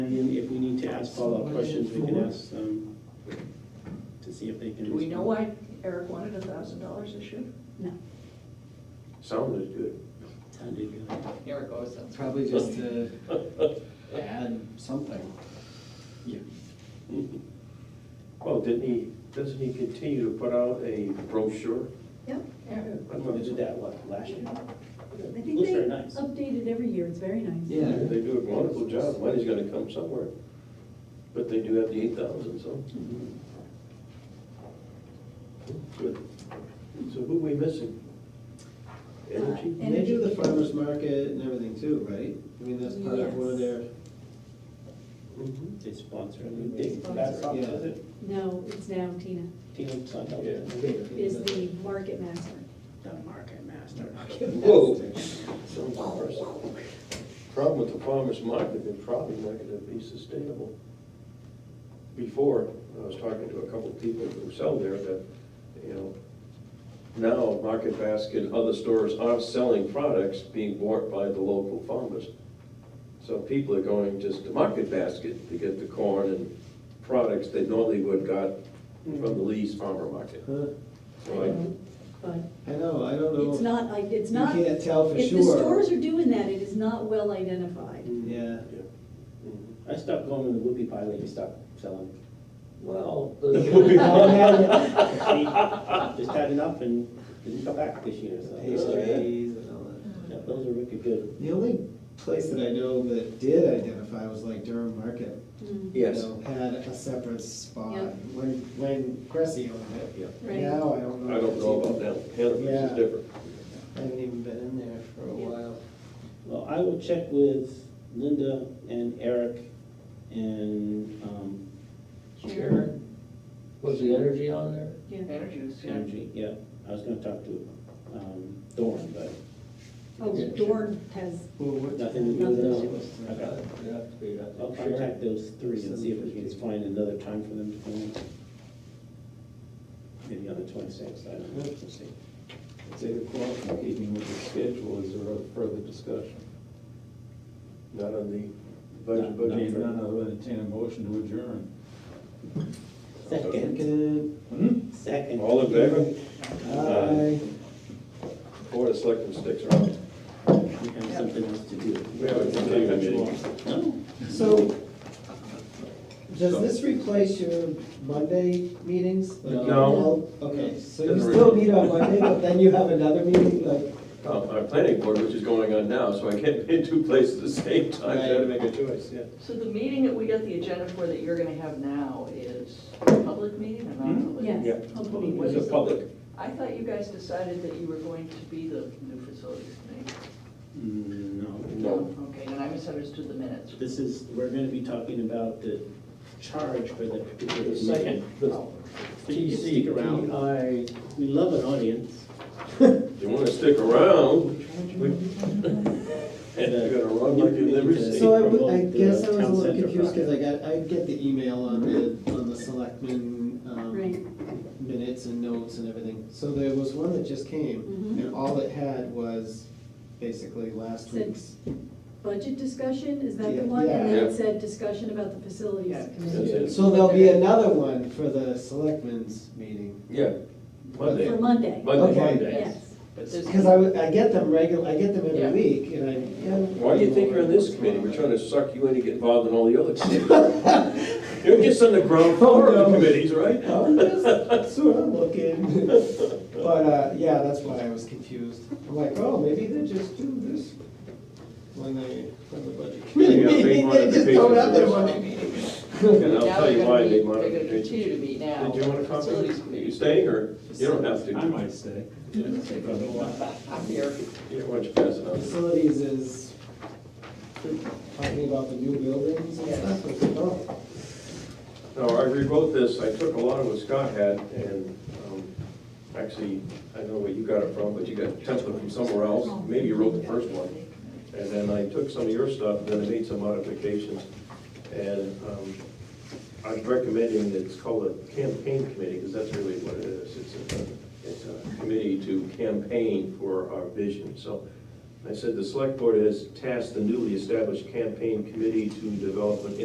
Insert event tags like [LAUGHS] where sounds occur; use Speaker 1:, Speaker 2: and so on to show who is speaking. Speaker 1: ask follow-up questions, we can ask them to see if they can.
Speaker 2: Do we know
Speaker 1: respond.
Speaker 2: why Eric wanted a thousand dollars this year?
Speaker 3: No.
Speaker 4: Sounded good.
Speaker 1: Sounded good.
Speaker 2: Eric always sounds.
Speaker 5: Probably just to add something.
Speaker 4: Well, didn't he, doesn't he continue to put out a brochure?
Speaker 3: Yep,
Speaker 1: I don't know, they did that, what, last year?
Speaker 3: I think
Speaker 1: Looks
Speaker 3: they
Speaker 1: very nice.
Speaker 3: update it every year, it's very nice.
Speaker 5: Yeah.
Speaker 4: They do a wonderful job, money's gonna come somewhere. But they do have the eight thousand, so.
Speaker 1: Mm-hmm.
Speaker 4: Good. So who we missing? Energy?
Speaker 3: Uh, and-
Speaker 6: They do the farmer's market and everything too, right? I mean, that's part of one of their,
Speaker 4: Mhm.
Speaker 1: They sponsor, it. they, that's up to the
Speaker 3: No, it's now Tina,
Speaker 1: team, it's not up to them.
Speaker 3: is the market master.
Speaker 1: The market master.
Speaker 4: Whoa. Some farmers. Problem with the farmer's market, they're probably not gonna be sustainable. Before, I was talking to a couple of people who sell there that, you know, now Market Basket, and other stores are selling products being bought by the local farmers. So people are going just to Market Basket to get the corn and products they normally would got from the Lee's Farmer Market.
Speaker 6: huh?
Speaker 3: I
Speaker 4: So Oh, I-
Speaker 3: know, But
Speaker 6: I know, I don't know.
Speaker 3: it's not, like it's not,
Speaker 6: You
Speaker 3: if
Speaker 6: can't tell for sure.
Speaker 3: the stores are doing that, it is not well identified.
Speaker 6: [LAUGHS] Yeah,
Speaker 1: I stopped going to the whoopie pie lady, stopped selling. [LAUGHS]
Speaker 4: Well.
Speaker 6: [LAUGHS]
Speaker 1: Just had enough and didn't come back this year, so.
Speaker 6: pastries and all that.
Speaker 1: Yeah, Those are wicked good.
Speaker 6: The only place that I know that did identify was like Durham Market.
Speaker 3: Mm,
Speaker 6: you
Speaker 4: Yes.
Speaker 6: know, Had a separate spot
Speaker 3: Yeah.
Speaker 6: when, when Cressy owned it.
Speaker 4: Yeah.
Speaker 3: Right.
Speaker 6: Now, I don't know.
Speaker 4: I
Speaker 6: if
Speaker 4: don't
Speaker 6: it's
Speaker 4: know
Speaker 6: even-
Speaker 4: about them, cannabis is
Speaker 6: Yeah.
Speaker 4: different.
Speaker 6: I haven't even been in there for a
Speaker 3: Yeah.
Speaker 6: while.
Speaker 1: Well, I will check with Linda and Eric and, um,
Speaker 3: Sharon,
Speaker 7: Was the energy on there?
Speaker 3: yeah.
Speaker 1: Energy, yeah, I was gonna talk to, um, Thorne, but
Speaker 3: Oh, Dorn has,
Speaker 6: Well, what-
Speaker 1: Nothing to do with
Speaker 6: No.
Speaker 1: those.
Speaker 6: I got it.
Speaker 7: It'd have to be, I
Speaker 1: I'll
Speaker 7: think, Sharon.
Speaker 1: contact those three and see if we can find another time for them to come in. Maybe on the twenty-sixth, I don't know, let's see.
Speaker 8: It's eight o'clock in the evening with the schedule, is there a further discussion?
Speaker 4: Not on the
Speaker 1: No,
Speaker 4: budget,
Speaker 1: no.
Speaker 4: budget.
Speaker 8: If not, I'll entertain a motion to adjourn.
Speaker 1: Second,
Speaker 6: Second,
Speaker 8: Hmm?
Speaker 1: second.
Speaker 4: All in favor?
Speaker 6: aye.
Speaker 4: Board of Selectmen sticks around.
Speaker 1: We have something else to do.
Speaker 4: We have a continuing meeting.
Speaker 1: No,
Speaker 6: So, does this replace your Monday meetings? Like,
Speaker 4: No.
Speaker 6: you all- Okay, so you
Speaker 4: Doesn't
Speaker 6: still
Speaker 4: really-
Speaker 6: meet on Monday, but then you have another
Speaker 1: [LAUGHS]
Speaker 6: meeting, like,
Speaker 4: Um, Our planning board, which is going on now, so I can't be in two places at the same time, I had to make a choice, yeah.
Speaker 9: So the meeting that we got the agenda for that you're gonna have now is a public meeting or non-public?
Speaker 3: yes,
Speaker 9: Well, what
Speaker 4: Hmm? It's
Speaker 3: hopefully.
Speaker 4: a
Speaker 9: is the-
Speaker 4: public.
Speaker 9: I thought you guys decided that you were going to be the new facilities committee.
Speaker 1: Mm, no.
Speaker 4: No.
Speaker 9: Okay, then I misunderstood the minutes.
Speaker 1: This is, we're gonna be talking about the charge for the particular
Speaker 4: Second,
Speaker 1: second.
Speaker 4: the
Speaker 9: Oh.
Speaker 1: Please stick around. We love an audience.
Speaker 4: You wanna stick around? we- And you're gonna run like you never see.
Speaker 6: so I would- I,
Speaker 1: promote the
Speaker 6: guess I was a
Speaker 1: town
Speaker 6: little
Speaker 1: center
Speaker 6: confused, cause I got, I get the email on the, on the selectmen,
Speaker 3: Right.
Speaker 6: um, minutes and notes and everything. So there was one that just came,
Speaker 3: Mhm.
Speaker 6: and all it had was basically last
Speaker 3: Said-
Speaker 6: week's.
Speaker 3: Budget discussion, is that
Speaker 6: Yeah.
Speaker 3: the one? And
Speaker 4: Yeah.
Speaker 3: then
Speaker 4: Yeah.
Speaker 3: it said discussion about the facilities
Speaker 9: Yeah.
Speaker 3: committee.
Speaker 4: That's it.
Speaker 6: So there'll be another one for the selectmen's meeting.
Speaker 4: Yeah, Monday.
Speaker 3: For Monday,
Speaker 4: Monday,
Speaker 6: Okay.
Speaker 4: Monday.
Speaker 3: yes.
Speaker 9: But
Speaker 6: Cause I, would- I get them regular, I get them
Speaker 9: Yeah.
Speaker 6: every week, and I. yeah,
Speaker 4: Why do you think you're on this committee?
Speaker 6: [LAUGHS]
Speaker 4: We're trying to suck you in and get involved in all the other committees. You're just on the ground floor of the committees, right?
Speaker 6: I'm just- That's what I'm looking. But, uh, yeah, that's why I was confused. I'm like, oh, maybe they just do this when they, when the budget committee
Speaker 4: Yeah, big
Speaker 6: meeting,
Speaker 4: one
Speaker 6: they
Speaker 4: of the
Speaker 6: just don't have their
Speaker 4: papers.
Speaker 6: Monday meeting.
Speaker 4: And I'll
Speaker 9: now
Speaker 4: tell you
Speaker 9: they're
Speaker 4: why
Speaker 9: gonna
Speaker 4: they
Speaker 9: be-
Speaker 4: want
Speaker 9: They're gonna
Speaker 4: to.
Speaker 9: continue to be now.
Speaker 4: Did you want to comment?
Speaker 9: Facilities
Speaker 4: Are you
Speaker 9: [LAUGHS] committee.
Speaker 4: staying, or you don't have to?
Speaker 8: I might stay.
Speaker 9: I'm here.
Speaker 4: Yeah, why don't you pass it
Speaker 6: [LAUGHS]
Speaker 4: on?
Speaker 6: Facilities is talking about the new buildings and stuff. It's like, oh,
Speaker 4: No, I rewrote this, I took a lot of what Scott had, and um, actually, I know where you got it from, but you got a template from somewhere else,
Speaker 9: Oh.
Speaker 4: maybe you wrote the first one.
Speaker 9: [LAUGHS]
Speaker 4: And then I took some of your stuff, and then I made some modifications. And um, I'm recommending that it's called a campaign committee, because that's really what it is. It's a, it's a committee to campaign for our vision. So I said, the select board has tasked the newly established campaign committee to develop an